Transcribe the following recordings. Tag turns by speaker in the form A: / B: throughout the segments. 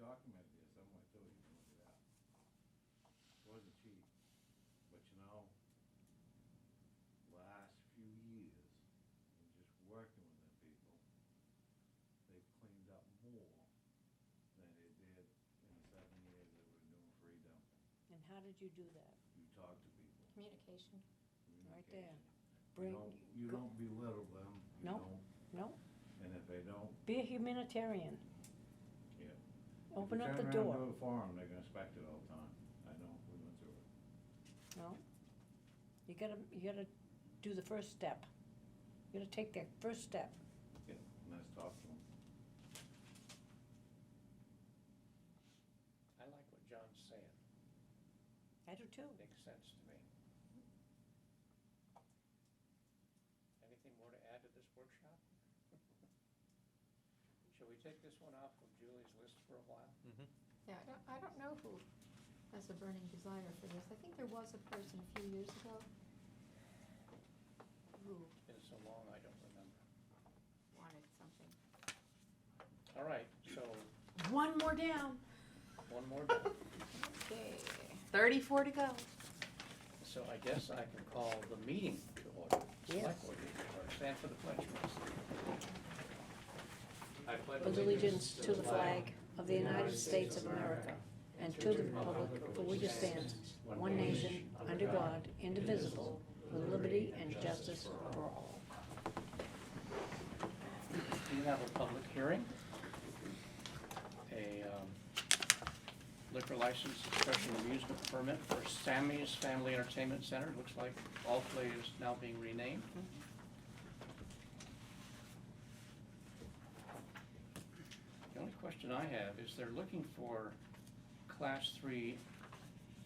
A: documented there somewhere too, you can look it up. It wasn't cheap, but you know, last few years, and just working with the people, they've cleaned up more than they did in the seven years that we're doing free dumping.
B: And how did you do that?
A: You talk to people.
C: Communication.
B: Right there.
A: communication. You
B: Bring-
A: don't, you
B: go-
A: don't belittle them, you
B: No.
A: don't,
B: No,
A: and if they don't,
B: be a humanitarian.
A: yeah.
B: Open up the
A: If you turn around
B: door.
A: and do it for them, they're gonna inspect it all the time. I know, we went through it.
B: No. You gotta, you gotta do the first step. You gotta take that first step.
A: Yeah, and that's tough to them.
D: I like what John's saying.
B: I do too.
D: Makes sense to me. Anything more to add to this workshop? Shall we take this one off of Julie's list for a while?
C: Yeah, I don't, I don't know who has a burning desire for this. I think there was a person a few years ago who
D: It's been so long, I don't remember.
C: wanted something.
D: All right, so
B: One more down.
D: one more down.
C: Okay, thirty-four to go.
D: So I guess I can call the meeting to order.
B: Yes.
D: Select board meeting to order. Stand for the pledge, please.
E: I pledge
B: With allegiance to the flag of the United States of America and to the republic for which it stands, one nation, under God, indivisible, with liberty and justice for all.
D: We have a public hearing. A um, liquor license expression amusement permit for Sammy's Family Entertainment Center. Looks like All Play is now being renamed. The only question I have is they're looking for Class 3,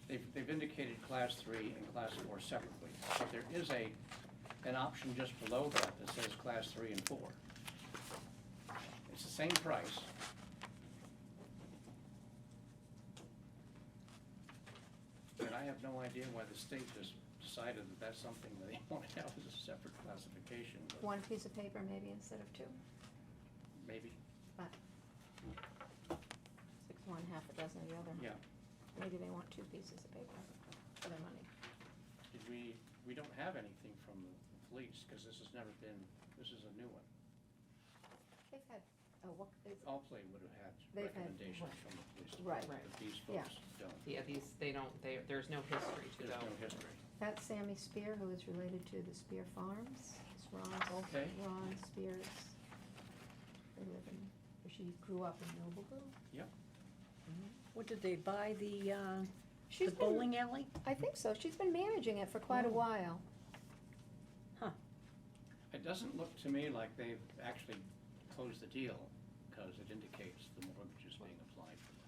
D: they've they've indicated Class 3 and Class 4 separately. But there is a, an option just below that that says Class 3 and 4. It's the same price. And I have no idea why the state just decided that that's something that they want to have as a separate classification, but
C: One piece of paper maybe instead of two,
D: maybe,
C: but six one, half a dozen of the other.
D: yeah.
C: Maybe they want two pieces of paper for their money.
D: Did we, we don't have anything from the police, because this has never been, this is a new one.
C: They've had, oh, what, is-
D: All play would have had
C: They've had-
D: recommendations from the police
C: Right.
D: department, but these
C: Yeah.
D: folks don't.
F: Yeah, these, they don't, they, there's no history to
D: There's
F: go.
D: no history.
C: that's Sammy Spear, who is related to the Spear Farms. It's Ron's,
D: Okay.
C: Ron Spear's. They live in, or she grew up in Nobleville.
D: Yep,
B: What, did they buy the, uh, the
C: She's been-
B: bowling alley?
C: I think so. She's been managing it for quite a
B: Oh.
C: while.
B: Huh,
D: it doesn't look to me like they've actually closed the deal, because it indicates the mortgage is being applied for.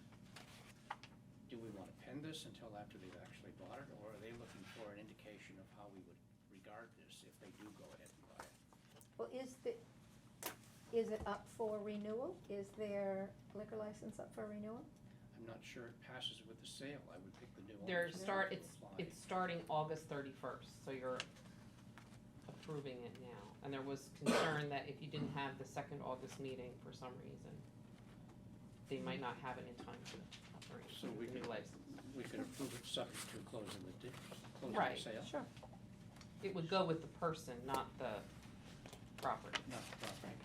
D: Do we want to pen this until after they've actually bought it, or are they looking for an indication of how we would regard this if they do go ahead and buy it?
C: Well, is the, is it up for renewal? Is their liquor license up for renewal?
D: I'm not sure it passes with the sale, I would pick the new one.
F: They're
D: that's
F: start,
D: going to
F: it's,
D: apply.
F: it's starting August thirty-first, so you're approving it now. And there was concern that if you didn't have the second August meeting for some reason, they might not have it in time to operate
D: So we
F: the new
D: can-
F: license.
D: We could approve it subject to closing the, di- closing the
F: Right.
D: sale.
C: Sure.
F: It would go with the person, not the property.
D: Not the property.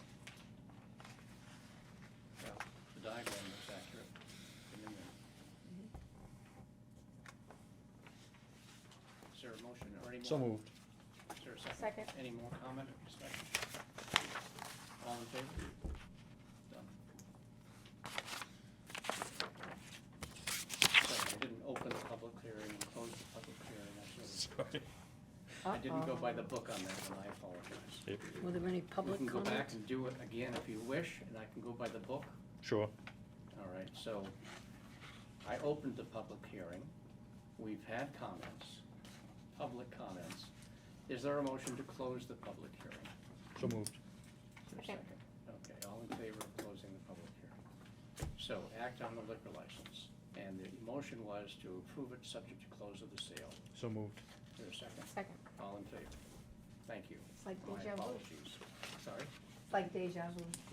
D: Well, the diagram looks accurate. The new one.
F: Mm-hmm.
D: Is there a motion or any more?
G: So moved.
D: Is there a second?
C: Second.
D: Any more comment or discussion? All in favor? Done. Sorry, I didn't open the public hearing and close the public hearing. I should've-
G: Sorry.
D: I didn't go by the book on that, and I apologize.
G: Yep,
B: were there any
D: We
B: public
D: can
B: comments?
D: go back and do it again if you wish, and I can go by the book.
G: Sure.
D: All right, so I opened the public hearing. We've had comments, public comments. Is there a motion to close the public hearing?
G: So moved.
D: Is there a
C: Second.
D: second? Okay, all in favor of closing the public hearing? So act on the liquor license, and the motion was to approve it subject to close of the sale.
G: So moved.
D: Is there a second?
C: Second.
D: All in favor? Thank you.
C: It's like deja vu.
D: My apologies. Sorry?
C: It's like deja vu.